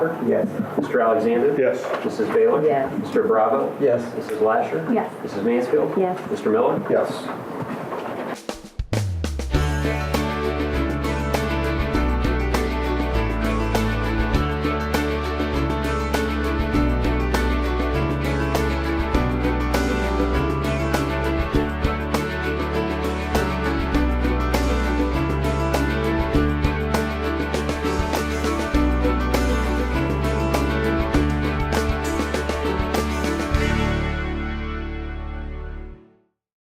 Yes. Mr. Alexander? Yes. Mrs. Baylor? Yes. Mr. Bravo? Yes. Mrs. Lasher? Yes. Mrs. Mansfield? Yes. Mr. Miller? Yes. Mr. Miller? Yes.